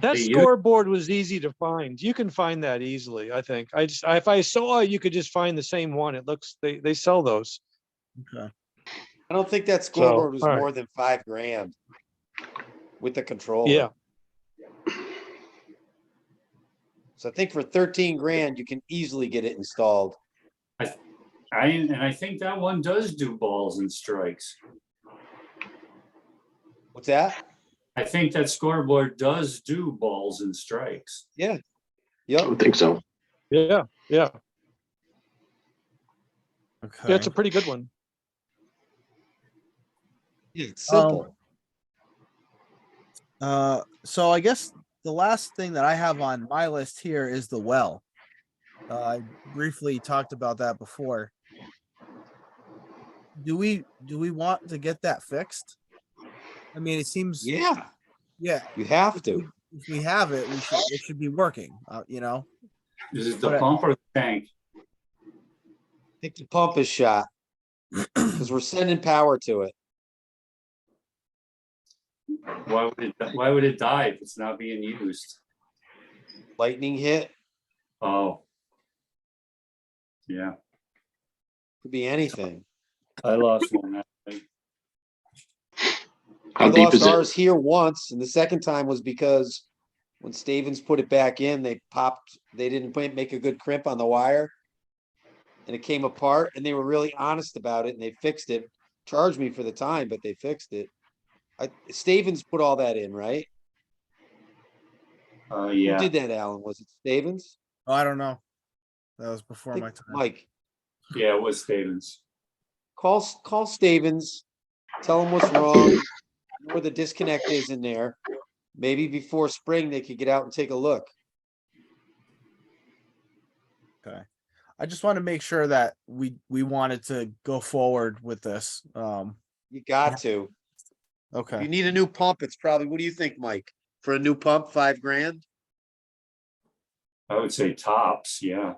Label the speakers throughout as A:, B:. A: That
B: Hey, you-
A: scoreboard was easy to find. You can find that easily, I think. I just, if I saw, it, you could just find the same one. It looks, they, they sell those.
C: I don't think that scoreboard was
A: all right.
C: more than five grand. With the
B: Oh.
C: controller.
A: Yeah,
C: So I think for thirteen grand, you can easily get it installed.
B: I, and I think that one does do balls and strikes.
C: What's that?
B: I think that scoreboard does do balls and strikes.
D: I
C: Yep,
D: don't think so.
A: yeah, yeah.
E: Okay.
A: That's a pretty good one.
C: it's
E: Um,
C: simple.
E: Uh, so I guess the last thing that I have on my list here is the well. Uh, I briefly talked about that before. Do we, do we want to get that fixed? I mean, it seems,
C: Yeah,
E: yeah,
C: you have to.
E: if we have it, we should, it should be working, uh, you know?
B: Is it the
E: Correct.
B: pump or the tank?
C: I think the pump is shot. Cause we're sending power to it.
B: Why would it, why would it die if it's not being used?
C: Lightning hit,
B: Oh. Yeah,
C: could be anything.
B: I lost one.
C: I
D: How deep
C: lost
D: is it?
C: ours here once and the second time was because. When Stevens put it back in, they popped, they didn't put- make a good crimp on the wire. And it came apart and they were really honest about it and they fixed it. Charged me for the time, but they fixed it. I, Stevens put all that in, right?
B: Uh,
C: Who
B: yeah.
C: did that, Alan? Was it Stevens?
E: Oh, I don't know. That was before
C: I
E: my
C: think
E: time.
C: Mike,
B: Yeah, it was Stevens.
C: call, S- call Stevens, tell him what's wrong, where the disconnect is in there. Maybe before spring, they could get out and take a look.
E: I just want to make sure that we, we wanted to go forward with this. Um,
C: You got to. You
E: okay.
C: need a new pump. It's probably, what do you think, Mike? For a new pump, five grand?
B: I would say tops, yeah.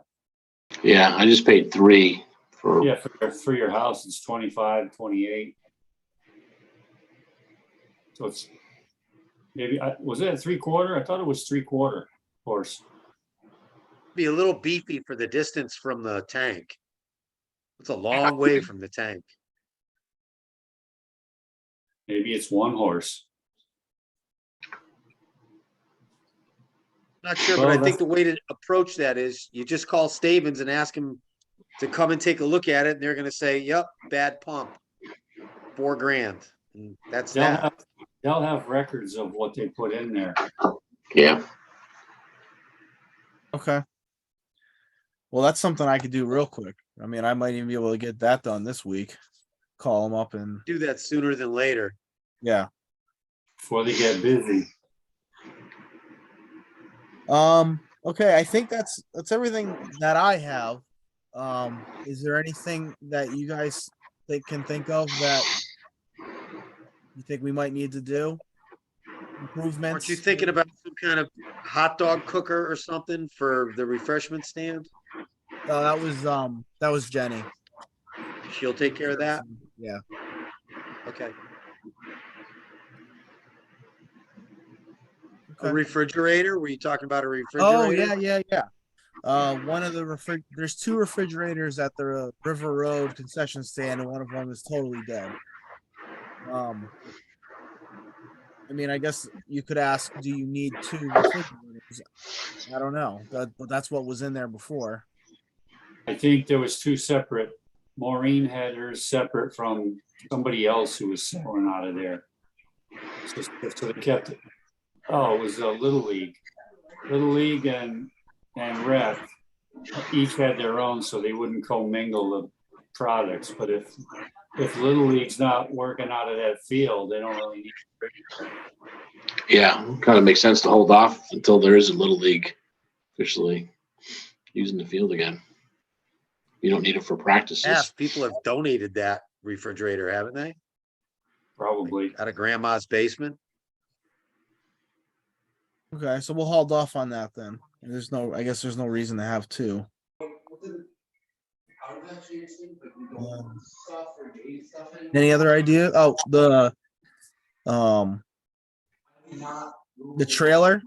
D: Yeah, I just paid three for,
B: Yeah, for, your- for your house, it's 25, 28. So it's maybe, I- was it a three quarter? I thought it was three quarter course.
C: Be a little beefy for the distance from the tank. It's a long way from the tank.
B: Maybe it's one horse.
C: Not sure, but I
B: Well,
C: think the way to approach that is you just call Stevens and ask him to come and take a look at it, and they're gonna say, yep, bad pump. Four grand, and that's
B: They'll
C: that.
B: have, they'll have records of what they put in there.
D: yeah.
E: Okay. Well, that's something I could do real quick. I mean, I might even be able to get that done this week. Call them up and,
C: Do that sooner than later.
E: yeah.
B: Before they get busy.
E: Um, okay, I think that's, that's everything that I have. Um, is there anything that you guys think can think of that you think we might need to do?
C: Aren't
E: Improvements?
C: you thinking about some kind of hot dog cooker or something for the refreshment stand?
E: No, that was, um, that was Jenny.
C: She'll take care of that?
E: Yeah.
C: Okay. A
E: Okay.
C: refrigerator? Were you talking about a refrigerator?
E: Oh, yeah, yeah, yeah. Uh, one of the refri- there's two refrigerators at the uh, River Road concession stand, and one of them is totally dead. Um, I mean, I guess you could ask, do you need two refrigerators? I don't know, that, but that's what was in there before.
B: I think there was two separate, Maureen had hers separate from somebody else who was selling out of there. So- So they kept it. Oh, it was a Little League. Little League and, and Rec each had their own, so they wouldn't commingle the products. But if, if Little League's not working out of that field, they don't really need.
D: Yeah, kind of makes sense to hold off until there is a little league officially using the field again. You don't need it for practices.
C: Half people have donated that refrigerator, haven't they?
B: Probably.
C: Out of grandma's basement?
E: Okay, so we'll hold off on that then. There's no, I guess there's no reason to have two. Um, Any other idea? Oh, the, um, the trailer